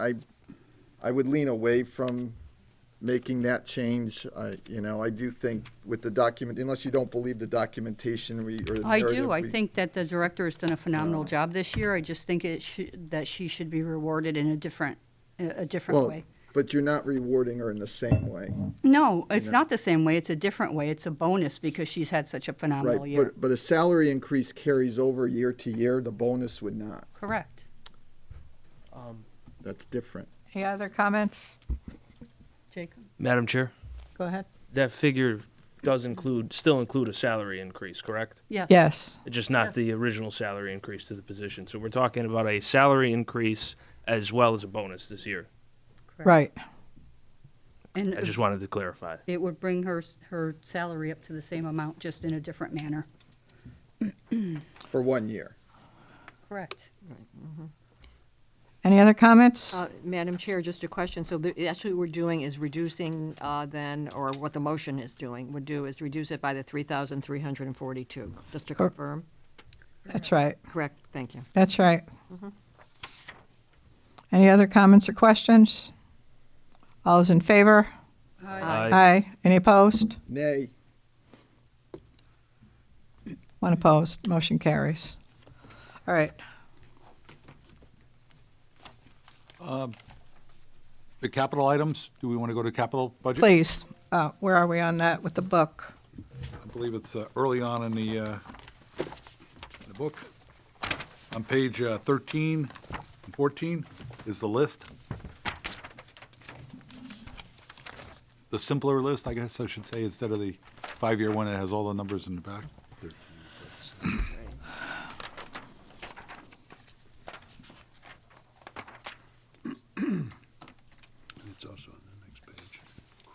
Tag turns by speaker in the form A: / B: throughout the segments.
A: I, I would lean away from making that change. I, you know, I do think with the document, unless you don't believe the documentation we, or the
B: I
A: narrative
B: do. I
A: we-
B: think that the director has done a phenomenal job this year. I just think it should, that she should be rewarded in a different, a a different
A: Well,
B: way.
A: But you're not rewarding her in the same way.
B: No, it's
A: know.
B: not the same way. It's a different way. It's a bonus because she's had such a phenomenal
A: Right,
B: year.
A: but, but a salary increase carries over year to year, the bonus would not.
B: Correct.
A: That's different.
C: Any other comments?
B: Jacob?
D: Madam Chair,
C: Go ahead.
D: that figure does include, still include a salary increase, correct?
B: Yes.
C: Yes.
D: Just not the original salary increase to the position. So we're talking about a salary increase as well as a bonus this year.
C: Right.
D: I
B: And
D: just wanted to clarify.
B: it would bring her, s- her salary up to the same amount, just in a different manner.
A: For one year.
B: Correct.
C: Any other comments?
E: Uh, Madam Chair, just a question. So the- that's what we're doing is reducing uh, then, or what the motion is doing, would do is reduce it by the 3,342, just to
C: Cor-
E: confirm.
C: That's right.
E: Correct, thank you.
C: That's right. Any other comments or questions? All those in favor?
D: Aye.
C: Aye. Any opposed?
A: Nay,
C: One opposed. Motion carries. All right.
F: The capital items, do we want to go to capital budget?
C: Please, uh, where are we on that with the book?
F: I believe it's uh, early on in the, uh, in the book. On page uh, 13 and 14 is the list. The simpler list, I guess I should say, instead of the five-year one that has all the numbers in the back.
G: It's also on the next page.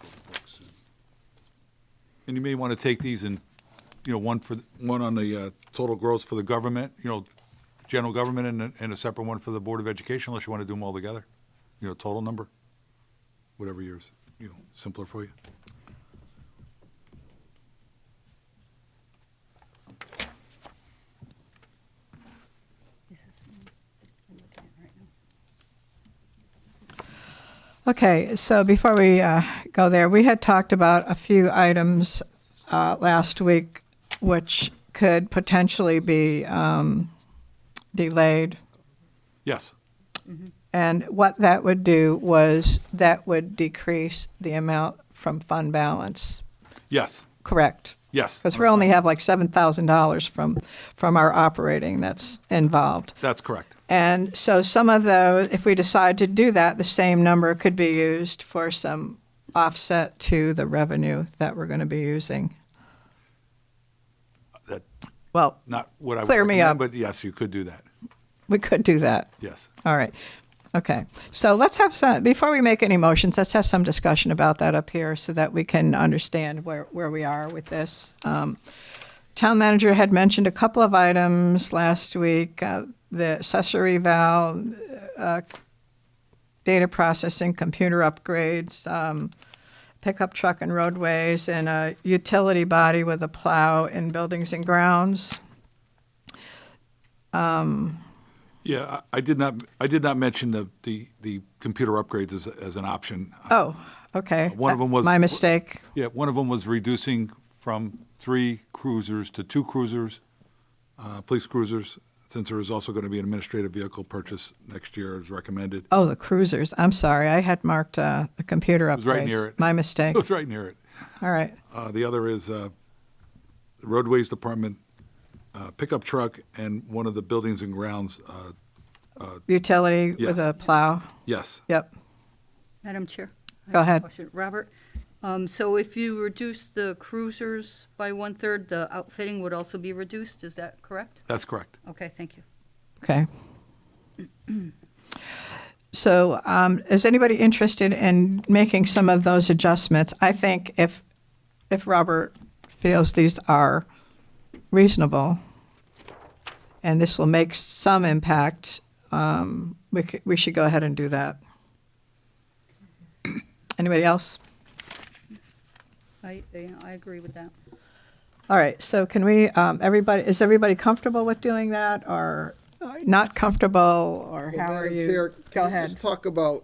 G: Chromebooks and-
F: And you may want to take these and, you know, one for, one on the uh, total growth for the government, you know, general government, and, a- and a separate one for the Board of Education, unless you want to do them all together. You know, total number, whatever yours, you know, simpler for you.
C: Okay, so before we uh, go there, we had talked about a few items uh, last week which could potentially be um, delayed.
F: Yes,
C: And what that would do was that would decrease the amount from fund balance,
F: yes,
C: correct?
F: yes.
C: Because we only have like $7,000 from, from our operating that's involved.
F: That's correct.
C: And so some of those, if we decide to do that, the same number could be used for some offset to the revenue that we're going to be using.
F: That,
C: Well,
F: not what I would
C: Clear me
F: recommend,
C: up.
F: But yes, you could do that,
C: we could do that.
F: yes.
C: All right. Okay. So let's have some, before we make any motions, let's have some discussion about that up here so that we can understand where, where we are with this. Um, town manager had mentioned a couple of items last week uh, the accessory val, uh, data processing, computer upgrades, um, pickup truck and roadways, and a utility body with a plow in buildings and grounds.
F: Yeah, I I did not, I did not mention the, the, the computer upgrades as, as an option.
C: Oh, okay.
F: Uh,
C: Uh,
F: One of 'em was-
C: my mistake.
F: Yeah, one of them was reducing from three cruisers to two cruisers, uh, police cruisers, since there is also going to be an administrative vehicle purchase next year as recommended.
C: Oh, the cruisers. I'm sorry. I had marked uh, the computer upgrades.
F: was right near it.
C: My mistake.
F: It was right near it.
C: All right.
F: Uh, The other is uh, the roadways department uh, pickup truck and one of the buildings and grounds, uh,
C: Utility with
F: Yes.
C: a plow.
F: yes.
C: Yep.
B: Madam Chair? I have
C: Go
B: a
C: ahead.
B: question. Robert, um, so if you reduce the cruisers by one-third, the outfitting would also be reduced, is that correct?
F: That's correct.
B: Okay, thank you.
C: Okay. So, um, is anybody interested in making some of those adjustments? I think if if Robert feels these are reasonable, and this will make some impact, um, we c- we should go ahead and do that. Anybody else?
B: I, I- I agree with that.
C: All right, so can we, um, everybody, is everybody comfortable with doing that, or um, not comfortable, or
A: Well,
C: how are
A: Madam
C: you?
A: Chair,
C: Go
A: can we
C: ahead.
A: Just talk about